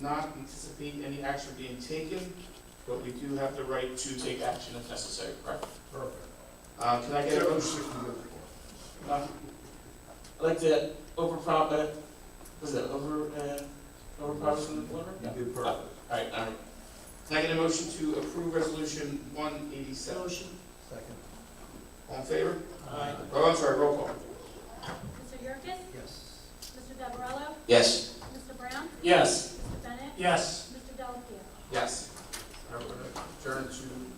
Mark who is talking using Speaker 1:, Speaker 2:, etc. Speaker 1: not anticipate any action being taken, but we do have the right to take action if necessary, correct?
Speaker 2: Perfect.
Speaker 1: Uh, Can I get a
Speaker 2: Seven
Speaker 1: motion?
Speaker 2: sixty-four.
Speaker 1: Uh, I'd like to over prom, uh, was it over, uh, over promise from the board?
Speaker 2: You
Speaker 1: No.
Speaker 2: did
Speaker 1: All
Speaker 2: perfect.
Speaker 1: right, all right. Can I get a motion to approve resolution one eighty-seven?
Speaker 3: Motion.
Speaker 2: Second.
Speaker 1: All in favor?
Speaker 3: Aye.
Speaker 1: Oh, I'm sorry, roll call.
Speaker 4: Mr. Yerkes?
Speaker 2: Yes.
Speaker 4: Mr. Gavarello?
Speaker 1: Yes.
Speaker 4: Mr. Brown?
Speaker 1: Yes.
Speaker 4: Mr. Bennett?
Speaker 3: Yes.
Speaker 4: Mr. Delapia?
Speaker 1: Yes. All right, we're gonna Turn to